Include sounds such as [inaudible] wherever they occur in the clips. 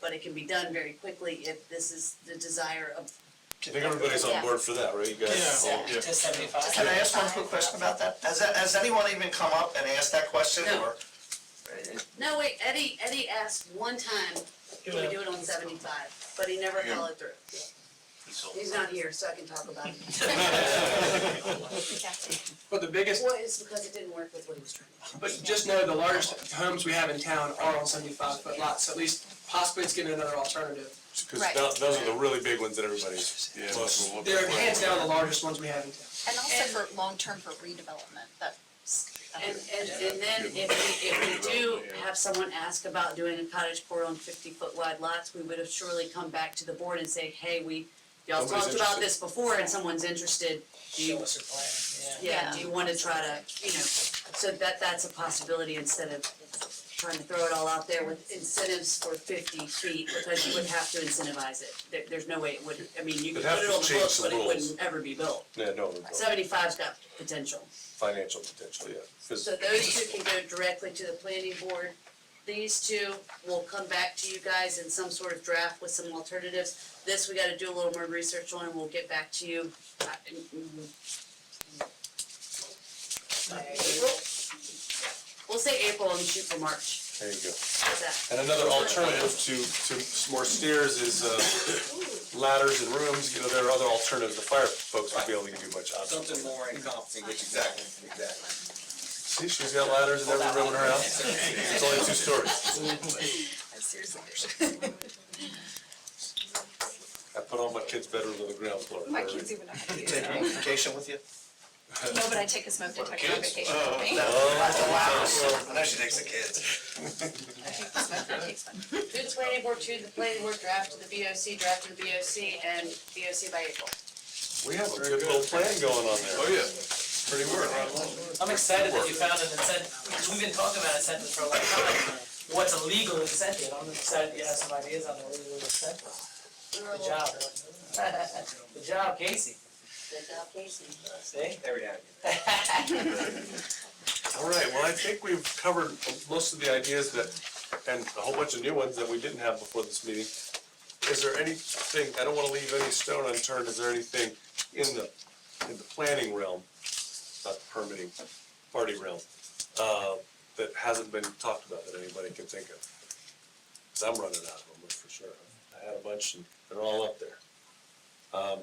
but it can be done very quickly if this is the desire of. I think everybody's on board for that, right, you guys? Yeah. to seventy-five. Can I ask one quick question about that? Has, that- has anyone even come up and asked that question [laughs] No. or? No, wait, Eddie, Eddie asked one time, can we do it on seventy-five, but he never Yeah. followed through. He's not here, so I can talk about [laughs] it. But the biggest, Well, it's because it didn't work with what he was trying to do. but just know the largest homes we have in town are on seventy-five foot lots, at least possibly it's getting another alternative. Because Right. those, those are the really big ones that everybody's. Yeah, most- we'll look They're at that. hands down the largest ones we have in town. And also And- for long-term for redevelopment, that. And, and, and then if we, if we do have someone ask about doing a cottage court on fifty-foot wide lots, we would have surely come back to the board and say, hey, we, y'all Somebody's talked about interested. this before and someone's interested, do you, us your plan, yeah, Yeah. do you wanna try to, you know, so that, that's a possibility instead of trying to throw it all out there with incentives for fifty feet, because you would have to incentivize it. There, there's no way it would, I mean, you could It'd have put it to on the change books, the but it rules. wouldn't ever be built. Yeah, no, we're both Seventy-five's got potential. financial potential, yeah. 'Cause- So those two can go directly to the planning board. These two will come back to you guys in some sort of draft with some alternatives. This, we gotta do a little more research on, and we'll get back to you. uh, in- in- uh, April? We'll say April and shoot for March. There you go. How's that? And another alternative to, to s- more stairs is, uh, ladders and rooms, you know, there are other alternatives, the fire folks would be able to give you a bunch of options. Something more encompassing, Exactly, exactly. See, she's got ladders in every room in her house, it's only two stories. I seriously I put all my kids' bedrooms on the ground floor. My kids even know how to use Take it. a vacation with you? No, but I take a smoke detector on vacation Oh, with me. Wow, I know she takes the kids. I take the smoke detector. To the planning board, to the planning board, draft to the BOC, draft to the BOC, and BOC by April. We have a good little plan going on there. Oh, yeah. Pretty work. I'm excited that you found an incentive, because we've been talking about incentives for a long time. What's a legal incentive? I'm excited you have some ideas on a legal incentive. Good job. [laughs] Good job, Casey. Good job, Casey. See? There we go. All right, well, I think we've covered most of the ideas that, and a whole bunch of new ones that we didn't have before this meeting. Is there anything, I don't wanna leave any stone unturned, is there anything in the, in the planning realm, not the permitting, party realm, uh, that hasn't been talked about that anybody can think of? Cause I'm running out of them, that's for sure. I had a bunch and they're all up there. Um,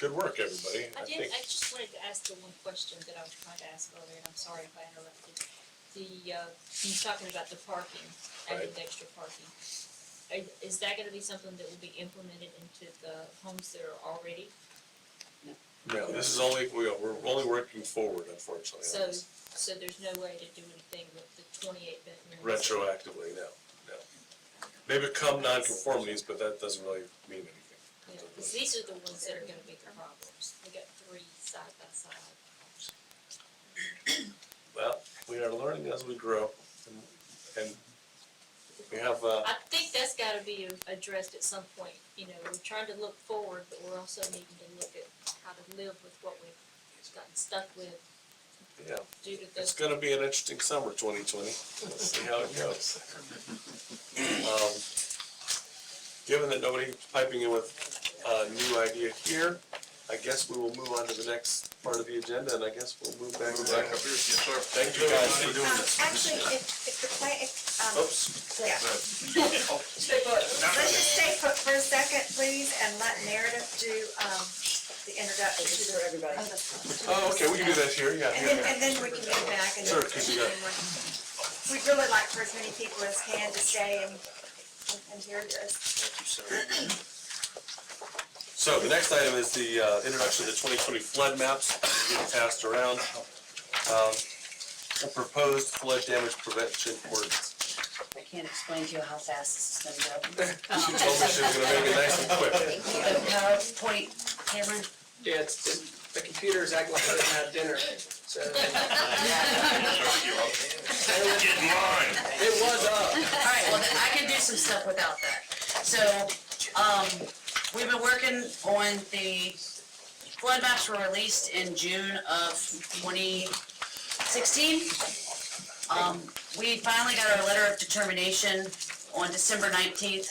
Good work, everybody. I did, think- I just wanted to ask the one question that I was trying to ask earlier, and I'm sorry if I interrupted. The, uh, you talking about the parking, added extra parking. Are- Is that gonna be something that will be implemented into the homes that are already? No, this is only, we are, we're only working forward unfortunately. on So, this. so there's no way to do anything with the twenty-eight bedrooms? Retroactively, no, no. They become nonconformities, but that doesn't really mean anything. Yeah, 'cause these are the ones that are gonna be the problems. We got three side by side. Well, we are learning as we grow and, and we have, uh, I think that's gotta be addressed at some point, you know, we're trying to look forward, but we're also needing to look at how to live with what we've gotten stuck with yeah, due to it's the gonna be an interesting summer, twenty twenty. Let's see how it goes. Um, Given that nobody's piping in with a new idea here, I guess we will move on to the next part of the agenda and I guess we'll move back. Move back up here, yes, sir. Thank you guys for doing Um, this. actually, if, if the plan, if, um, Oops. yeah, let's just stay put for a second, please, and let narrative do, um, the introduction to the. everybody. Oh, okay, we can do that here, yeah. And then, and then we can go back and. Sure, 'cause you got- We'd really like for as many people as can to stay and, and hear this. So the next item is the uh, introduction of the 2020 flood maps getting passed around. Um, A proposed flood damage prevention ordinance. I can't explain to you how fast this is gonna go. [laughs] Um, She told me she was gonna make it nice and quick. The PowerPoint, Cameron, Yeah, it's, it- the computer's acting like I didn't have dinner, so. um, Get in line. [laughs] It was uh, up. Alright, well, then I can do some stuff without that. So, um, we've been working on the flood maps were released in June of twenty sixteen. Um, we finally got our letter of determination on December nineteenth,